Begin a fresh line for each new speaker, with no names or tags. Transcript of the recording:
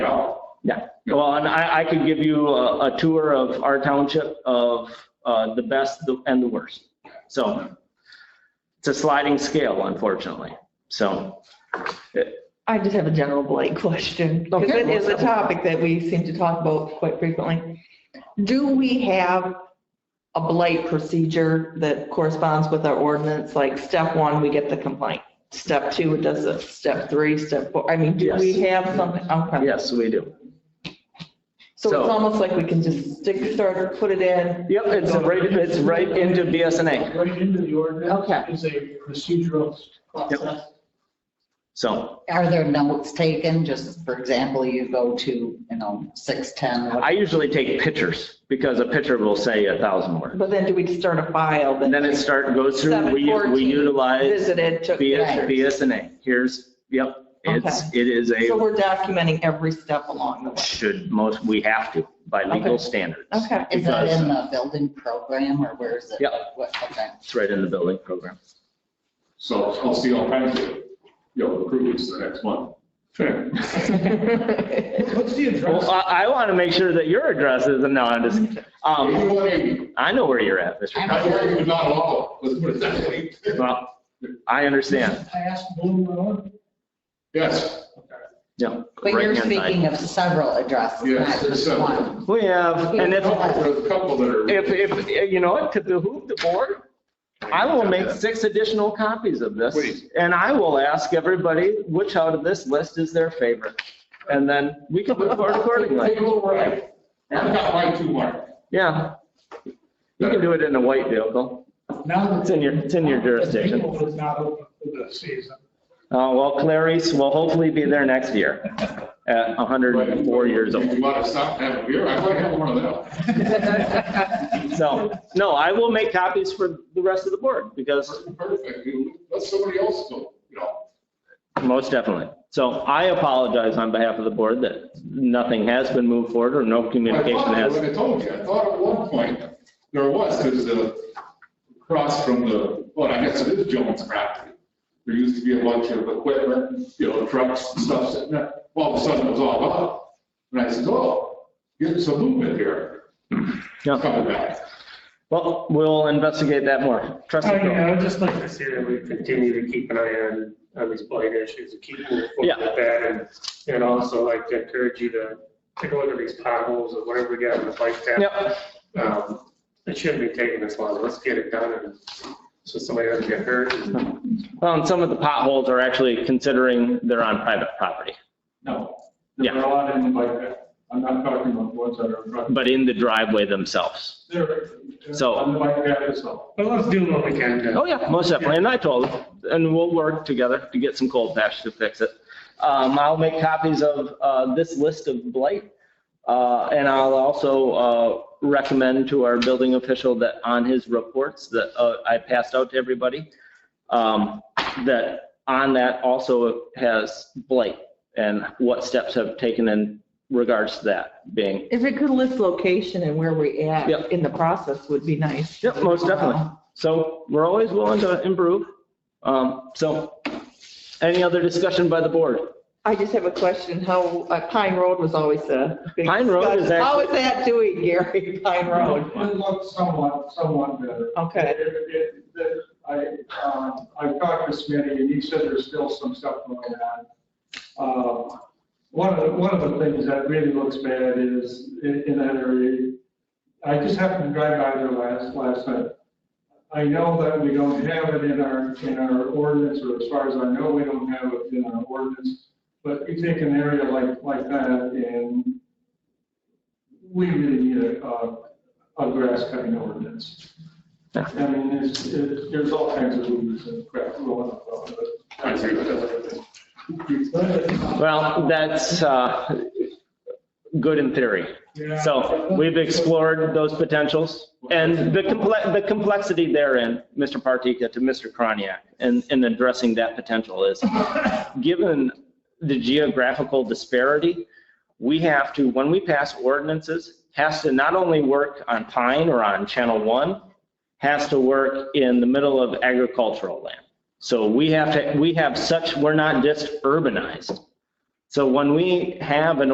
Yeah, well, and I, I could give you a, a tour of our township of, uh, the best and the worst. So it's a sliding scale, unfortunately. So,
I just have a general blank question, because
Okay.
it is a topic that we seem to talk about quite frequently. Do we have a blight procedure that corresponds with our ordinance? Like, step one, we get the complaint. Step two, it does it. Step three, step four, I mean, do we have something? Okay.
yes, we do.
So it's
so-
almost like we can just stick, start, put it in.
Yep, it's right, it's right into BSNA.
Right into the ordinance
Okay.
is a procedural process.
So
Are there notes taken? Just for example, you go to, you know, 610.
I usually take pictures because a picture will say a thousand words.
But then do we start a file
And
that
then it start, goes through, we, we
714
utilize
visited, took
BS,
pictures?
BSNA. Here's, yep, it's, it is
So
a,
we're documenting every step along the way.
should most, we have to by legal
Okay.
standards.
Okay.
Is that
Because-
in the building program or where is it?
Yeah.
What, okay.
It's right in the building program.
So I'll see all kinds of, you know, improvements the next month.
What's the address?
Well, I, I want to make sure that your address is, no, I'm just, um,
Anyway,
I know where you're at, Mr.
I'm worried but not allowed, let's put it that way.
Cox. Well, I understand,
I asked Bloom Road.
Yes,
yeah.
But you're
right-hand side.
speaking of several addresses,
Yes,
not
there's
just
several.
one.
We have, and if,
there's a couple that are.
if, if, you know, what, to behoove the board, I will make six additional copies of this.
Please.
And I will ask everybody which out of this list is their favorite. And then we can move forward accordingly.
Take a little ride. I've got mine too, Mark.
Yeah, you can do it in a white vehicle.
Now that
It's in your, it's in your jurisdiction.
People was not open for the season.
Uh, well, Clarice will hopefully be there next year at 104 years
If
old.
you want to stop and have a beer, I might have one of them.
So, no, I will make copies for the rest of the board because
Perfect, let somebody else go, you know.
most definitely. So I apologize on behalf of the board that nothing has been moved forward or no communication
I thought-
has.
I told you, I thought at one point there was, because the, across from the, well, I guess it is Jones property. There used to be a bunch of equipment, you know, trucks and stuff sitting there. All of a sudden it was all up. And I said, oh, getting some movement here,
Yeah.
coming back.
Well, we'll investigate that more. Trust me.
I mean,
Phil.
I would just like to say that we continue to keep an eye on, on these blight issues, to keep moving forward
Yeah.
with that. And, and also like to encourage you to take a look at these potholes or whatever we got in the bike path. Um, It shouldn't be taking this long. Let's get it done and so somebody doesn't get hurt. and-
Well, and some of the potholes are actually considering they're on private property,
No. There are a lot in the bike path. I'm not talking about ones that are in front.
but in the driveway themselves.
There-
So-
On the bike path itself.
But let's do what we can to.
Oh, yeah, most definitely. And I told them, and we'll work together to get some cold patch to fix it. Um, I'll make copies of, uh, this list of blight. Uh, and I'll also, uh, recommend to our building official that on his reports that, uh, I passed out to everybody, um, that on that also has blight and what steps have taken in regards to that being.
If it could list location and where we at
Yep.
in the process would be nice. Uh,
Yep, most definitely. So we're always willing to improve. Um, so any other discussion by the board?
I just have a question, how, uh, Pine Road was always a. big
Pine Road is
discussion. How is that doing, Gary, Pine Road?
It looks somewhat, somewhat better.
Okay,
It- it- that- I, um, I've talked to Smitty and he said there's still some stuff going on. Uh, One of, the- one of the things that really looks bad is in, in that area, I just happened to drive by there last, last night. I know that we don't have it in our, in our ordinance, or as far as I know, we don't have it in our ordinance. But you take an area like, like that and we really need a, a a grass cutting ordinance.
Yeah.
I mean, it's, it- there's all kinds of rules and crap going on, but.
I agree with
Well, that's, uh, good in theory.
Yeah.
So we've explored those potentials and the complex, the complexity therein, Mr. Partika to Mr. Kroniak, in, in addressing that potential is, given the geographical disparity, we have to, when we pass ordinances, has to not only work on Pine or on Channel One, has to work in the middle of agricultural land. So we have to, we have such, we're not just urbanized. So when we have an